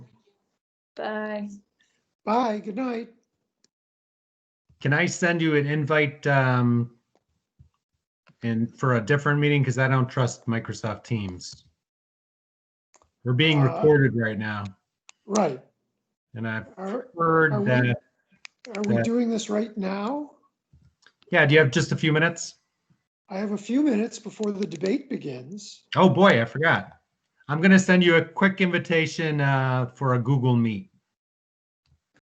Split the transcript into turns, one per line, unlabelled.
Bye.
Bye, good night.
Can I send you an invite um and for a different meeting because I don't trust Microsoft Teams. We're being
Uh,
recorded right now,
Right.
and I've
Are,
heard
Are we-
that.
are we
Yeah.
doing this right now?
Yeah, do you have just a few minutes?
I have a few minutes before the debate begins.
Oh boy, I forgot. I'm gonna send you a quick invitation uh for a Google Meet.